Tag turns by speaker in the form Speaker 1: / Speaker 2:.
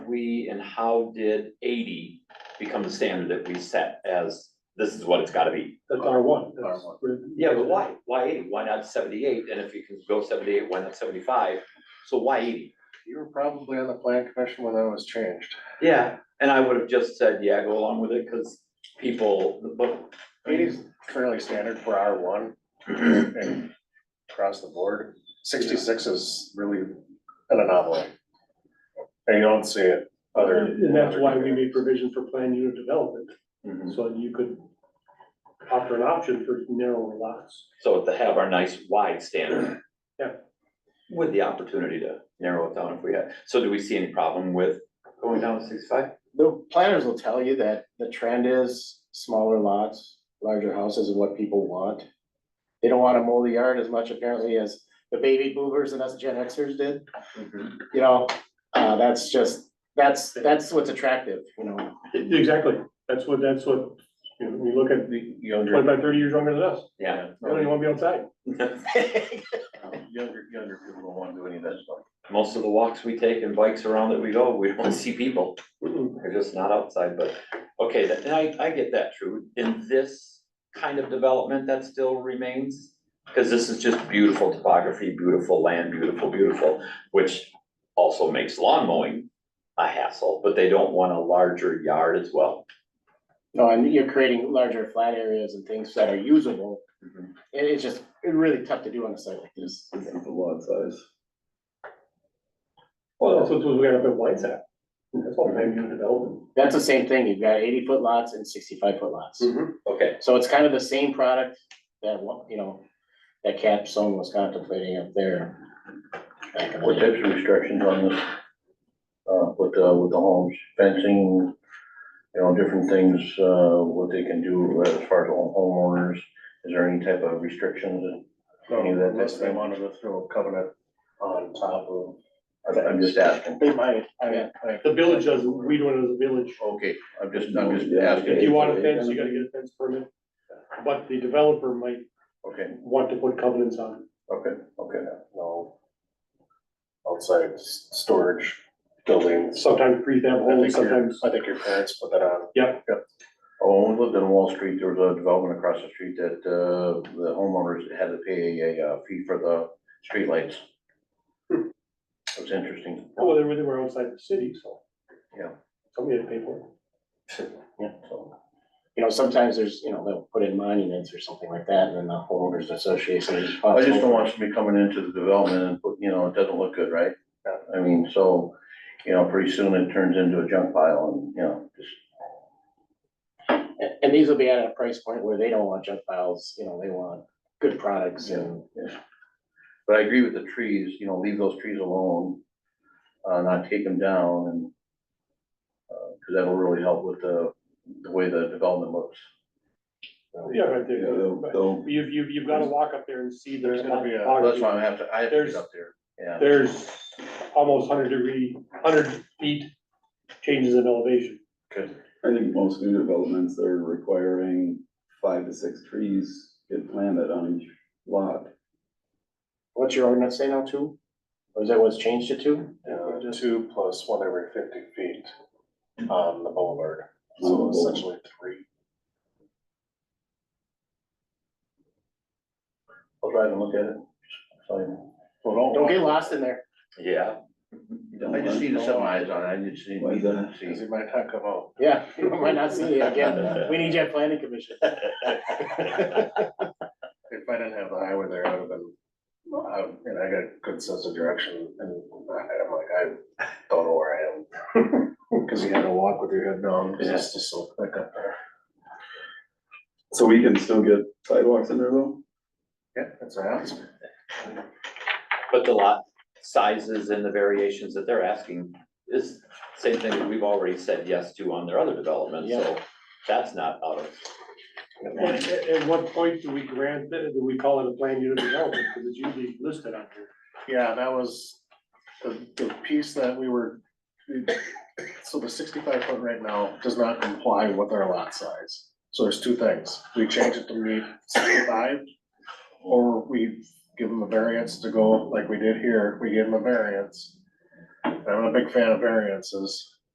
Speaker 1: we and how did eighty become the standard that we set as, this is what it's gotta be?
Speaker 2: That's R one.
Speaker 3: R1.
Speaker 1: Yeah, but why, why eighty? Why not seventy-eight? And if you can go seventy-eight, why not seventy-five? So why eighty?
Speaker 3: You were probably on the plan commission when that was changed.
Speaker 1: Yeah. And I would have just said, yeah, go along with it, cause people, but,
Speaker 3: Eighty's fairly standard for R one and across the board. Sixty-six is really an anomaly. And you don't see it other.
Speaker 2: And that's why we made provision for planned unit development,
Speaker 1: Mhm.
Speaker 2: so you could offer an option for narrower lots.
Speaker 1: so to have our nice wide standard.
Speaker 2: Yeah.
Speaker 1: With the opportunity to narrow it down if we had. So do we see any problem with going down to sixty-five?
Speaker 4: The planners will tell you that the trend is smaller lots, larger houses is what people want. They don't wanna mow the yard as much apparently as the baby boomers and us Gen Xers did, you know? Uh, that's just, that's, that's what's attractive, you know?
Speaker 2: Exactly, that's what, that's what, you know, we look at the
Speaker 3: Younger,
Speaker 2: twenty-five, thirty years younger than us,
Speaker 1: Yeah.
Speaker 2: they don't even wanna be outside.
Speaker 3: younger, younger people don't wanna do any of that stuff.
Speaker 1: Most of the walks we take and bikes around that we go, we don't see people.
Speaker 2: Mm-mm.
Speaker 1: They're just not outside, but, okay, that, and I, I get that, true. In this kind of development, that still remains? Cause this is just beautiful topography, beautiful land, beautiful, beautiful, which also makes lawn mowing a hassle, but they don't want a larger yard as well.
Speaker 4: No, and you're creating larger flat areas and things that are usable.
Speaker 1: Mhm.
Speaker 4: It is just, it's really tough to do on a site like this.
Speaker 1: The lot size.
Speaker 2: Well, that's
Speaker 1: Well,
Speaker 2: what we got up at White's at, that's all planned unit development.
Speaker 4: That's the same thing, you've got eighty foot lots and sixty-five foot lots.
Speaker 2: Mm-hmm.
Speaker 1: okay,
Speaker 4: So it's kind of the same product that, wa- you know, that Capstone was contemplating up there. back in the
Speaker 5: What
Speaker 4: day.
Speaker 5: types of restrictions on this? Uh, with the, with the homes, fencing, you know, different things, uh, what they can do as far as home- homeowners? Is there any type of restrictions? Any of that
Speaker 3: Unless they
Speaker 5: type of-
Speaker 3: wanted to throw a covenant on top of.
Speaker 5: I'm, I'm just asking.
Speaker 4: They might, I mean,
Speaker 3: I, I.
Speaker 2: The village doesn't, we do it as a village.
Speaker 5: Okay, I'm just, I'm just
Speaker 2: If you
Speaker 5: asking.
Speaker 2: want a fence, you gotta get a fence permit, but the developer might
Speaker 5: Okay,
Speaker 2: want to put covenants on it.
Speaker 5: okay, okay.
Speaker 3: No. Outside s- storage buildings.
Speaker 2: sometimes prefab
Speaker 3: I think
Speaker 2: homes,
Speaker 3: your-
Speaker 2: sometimes.
Speaker 3: I think your parents put that on.
Speaker 5: Oh, when we lived on Wall Street, there was a development across the street that, uh, the homeowners had to pay a, uh fee for the streetlights. It was interesting.
Speaker 2: Well, they were, they were outside the city, so.
Speaker 5: Yeah.
Speaker 2: Somebody had to pay for it.
Speaker 5: So,
Speaker 4: you know, sometimes there's, you know, they'll put in monuments or something like that, and then the homeowners association is
Speaker 5: I just
Speaker 4: responsible.
Speaker 5: don't want somebody coming into the development and put, you know, it doesn't look good, right? I mean, so, you know, pretty soon it turns into a junk pile and, you know, just
Speaker 4: And, and these will be at a price point where they don't want junk files, you know, they want good products and,
Speaker 5: But I agree with the trees, you know, leave those trees alone, uh, not take them down and, uh, cause that'll really help with the, the way the development looks.
Speaker 2: Yeah, right there.
Speaker 5: They'll-
Speaker 2: But
Speaker 5: they'll-
Speaker 2: You've, you've, you've gotta walk up there and see
Speaker 3: There's
Speaker 2: there's
Speaker 3: gonna be a-
Speaker 5: Well, That's why I have to, I have to get up there, yeah.
Speaker 2: There's almost hundred degree, hundred feet changes in elevation.
Speaker 6: I think most new developments are requiring five to six trees get planted on each lot.
Speaker 4: what's your ordinance say now, two? Or is that what's changed to two?
Speaker 3: Uh, two plus one every fifty feet on the boulevard, so
Speaker 6: Oh.
Speaker 3: essentially three.
Speaker 5: I'll drive and look at it. So,
Speaker 3: Well,
Speaker 4: Don't get lost in there.
Speaker 1: yeah.
Speaker 5: I just need to set my eyes on it, I just need
Speaker 6: Why is
Speaker 5: to
Speaker 6: that?
Speaker 3: Cause
Speaker 5: see.
Speaker 3: you might not come out.
Speaker 4: Yeah, you might not see it again. We need you at planning commission.
Speaker 3: If I didn't have the highway there, I would have been, um, and I got a good sense of direction and I- I'm like, I don't know where I am. Cause you had to walk with your head down, cause it's just so thick up there.
Speaker 6: So we can still get sidewalks in there though?
Speaker 3: Yeah, that's what I asked.
Speaker 1: But the lot sizes and the variations that they're asking is same thing that we've already said yes to on their other developments, so that's not out of.
Speaker 2: At, at- at what point do we grant, that- do we call it a planned unit development, because it's usually listed on here.
Speaker 3: Yeah, that was the, the piece that we were, so the sixty-five foot right now does not comply with our lot size. So there's two things, we change it to meet sixty-five, or we give them a variance to go like we did here, we gave them a variance. I'm a big fan of variances,